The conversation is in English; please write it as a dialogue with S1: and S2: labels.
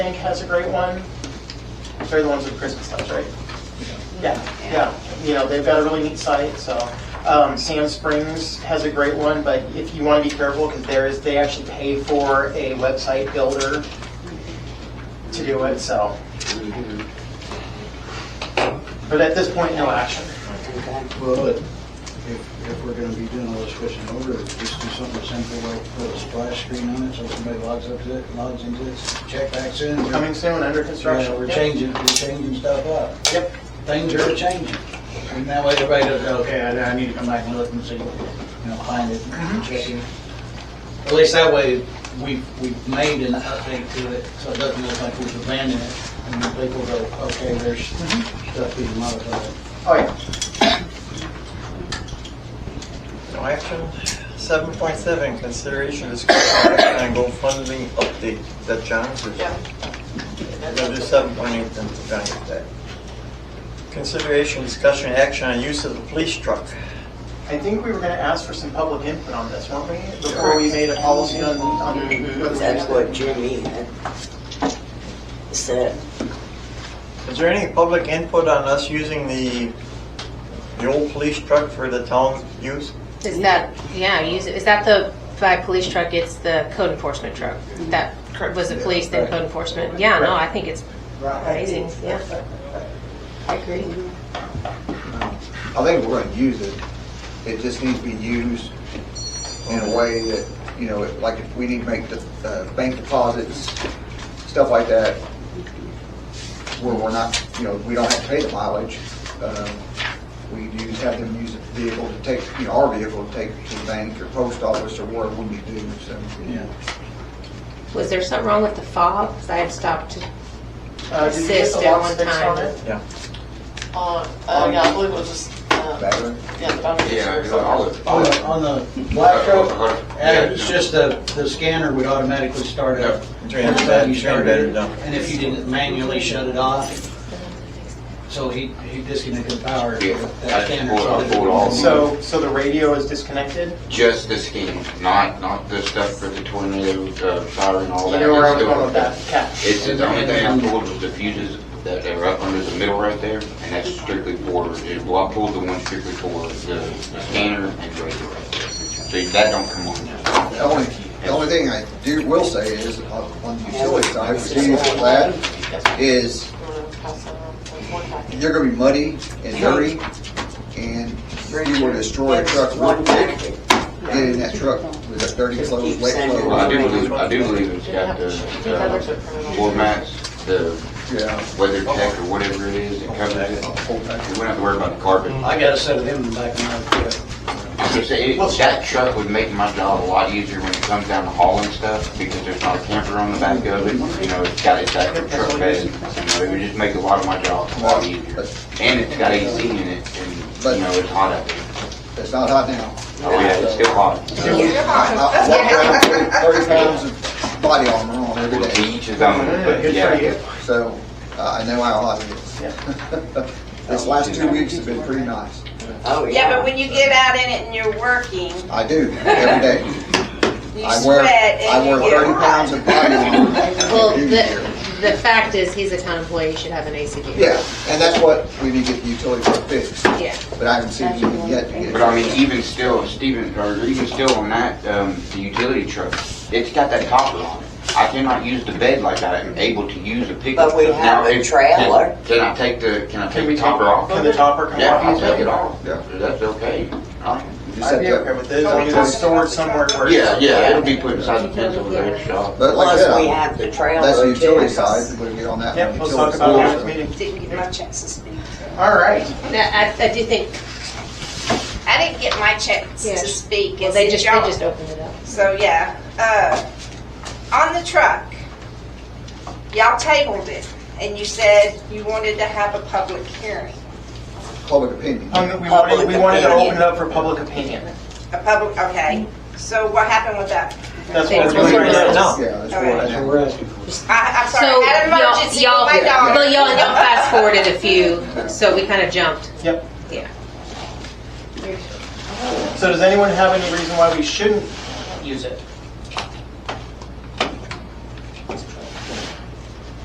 S1: think has a great one. They're the ones with Christmas lights, right? Yeah, yeah, you know, they've got a really neat site, so. Um, Sand Springs has a great one, but if you want to be careful, because there is, they actually pay for a website builder to do it, so. But at this point, no action.
S2: Well, but if, if we're gonna be doing all this switching over, just do something simple, like put a splash screen on it, so somebody logs up to it, logs into it, check backs in.
S1: Coming soon, under construction.
S2: Yeah, We're
S1: Yep.
S2: changing, we're changing stuff up.
S1: Yep,
S2: Things are changing. And that way everybody goes, okay, I, I need to come back and look and see, you know, find it, check it. At least that way, we've, we've made an update to it, so it doesn't look like we've abandoned it. And then people go, okay, there's stuff being modified.
S1: oh yeah.
S3: No action. 7.7, consideration discussion action on GoFundMe update. Is that John's? or-
S1: Yeah.
S3: We're gonna do 7.8 then for John's today. Consideration discussion action on use of the police truck.
S1: I think we were going to ask for some public input on this, weren't we? Before we made a policy on, on.
S2: Mm-hmm.
S4: That's what Jimmy had said.
S3: Is there any public input on us using the, the old police truck for the town use?
S5: Is that, yeah, use, is that the, by police truck, it's the code enforcement truck? That was the police, then code enforcement? Yeah, no, I think it's amazing, yeah. I agree.
S6: I think we're gonna use it. It just needs to be used in a way that, you know, if- like if we need to make the, uh, bank deposits, stuff like that, where we're not, you know, we don't have to pay the mileage. um, We use, have them use the vehicle to take, you know, our vehicle to take to the bank or post office or wherever we need to, so.
S2: Yeah.
S5: Was there something wrong with the fob? Because I had stopped to,
S1: Uh, did you get the Um,
S5: Assist at
S1: lock
S5: one
S1: fixed on
S5: time.
S1: it?
S7: Uh, uh, yeah, I believe it was just, uh,
S6: Battery.
S7: yeah, the boundary.
S8: Yeah,
S7: or
S8: it's like all
S7: something.
S8: the.
S2: On the, on the black truck, uh, it's just the, the scanner would automatically start up.
S3: Is there
S2: Every
S3: any-
S2: time you
S3: Turn
S2: started
S3: that
S2: it,
S3: down.
S2: And if you didn't manually shut it off, so he, he disconnected the power.
S8: Yeah,
S2: That
S8: I
S2: scanner
S8: pulled- I
S2: started.
S8: pulled all-
S1: So, so the radio is disconnected?
S8: Just the scheme, not, not the stuff for the tornado, uh, fire and all
S1: You
S8: that.
S1: know where I was
S8: It's
S1: going with
S8: the-
S1: that, Cat.
S8: It's the only thing I pulled was the fuses that are up under the middle right there, and that's strictly for, well, I pulled the one strictly for the the scanner and radio right there. So that don't come on now.
S6: The only, the only thing I do, will say is, on on the utility side, for dealing with that, is
S7: Pass that around. There's one back.
S6: you're gonna be muddy and dirty, and you will destroy a truck real
S4: One
S6: quick.
S4: packet.
S6: Get in that truck with that dirty clothes, wet
S8: Well, I do
S6: clothes.
S8: believe, I do believe it's got the, the floor mats, the
S6: Yeah,
S8: weather tech or whatever it is that covers it.
S6: whole package.
S8: We don't have to worry about the carpet.
S2: I got a set of them in the back of my truck.
S8: I'm just saying, it- that truck would make my job a lot easier when it comes down to hauling stuff, because there's not a camper on the back of it, you know, it's got its actual truck bed. You know, it would just make a lot of my job a lot easier. And it's got AC in it, and, you know, it's hot out there.
S6: It's not hot now.
S8: Oh, yeah, it's still hot.
S6: I walk around with Thirty pounds of body armor on every
S8: Well, to
S6: day,
S8: each his own, but yeah.
S6: so uh, I know how hot it is. This last two weeks have been pretty nice.
S4: Oh,
S9: Yeah, but when you get out in it and you're working,
S6: I do, every day.
S9: you
S6: I wear,
S9: sweat
S6: I
S9: and you
S6: wear
S9: get
S6: thirty pounds
S9: hot.
S6: of body armor.
S5: well,
S6: every year.
S5: the, the fact is, he's a town employee, he should have an ACV.
S6: Yeah, and that's what we need to get the utility truck fixed,
S5: Yeah.
S6: but I haven't seen it yet to get it.
S8: But I mean, even still, Steven, or even still on that, um, the utility truck, it's got that topper on it. I cannot use the bed like I am able to use a pickup.
S4: But we
S8: truck.
S4: have
S8: Now,
S4: a
S8: if-
S4: trailer.
S8: Can can I take the, can I
S1: Can
S8: take
S1: we
S8: the
S1: top
S8: topper
S1: off?
S8: off?
S1: Can the topper come off?
S8: Yeah, I'll take it off. Yeah, That's okay. I'll-
S1: I'd be okay with this, as long as it's stored somewhere where. it's-
S8: Yeah, yeah, it'll be put inside the fence over there at the shop.
S6: But like I said,
S4: Plus, we
S6: I-
S4: have the trailer.
S6: that's the utility
S4: too.
S6: side, we're gonna get on that.
S1: Yep, let's talk about
S6: Utility
S1: it next
S6: side.
S1: meeting.
S9: Didn't get my checks this week.
S1: All right.
S5: Now, I, I do think,
S9: I didn't get my checks to
S5: Yes.
S9: speak.
S5: well,
S9: It's
S5: they
S9: in
S5: just, they
S9: y'all.
S5: just opened it up.
S9: So, yeah, uh, on the truck, y'all tabled it and you said you wanted to have a public hearing.
S6: Public opinion.
S1: Um, we wanted, we wanted to open it up for public opinion.
S9: A public, okay. So what happened with that?
S1: That's what we're
S5: Thanks.
S1: doing right now.
S6: Yeah, that's
S9: All right.
S6: what
S2: That's
S6: I
S2: what
S6: know.
S2: we're asking for.
S9: I, I'm
S5: So,
S9: sorry, I had an
S5: y'all,
S9: emergency
S5: y'all,
S9: with my daughter.
S5: well, y'all, y'all fast forwarded a few, so we kind of jumped.
S1: Yep.
S5: Yeah.
S1: So does anyone have any reason why we shouldn't use it?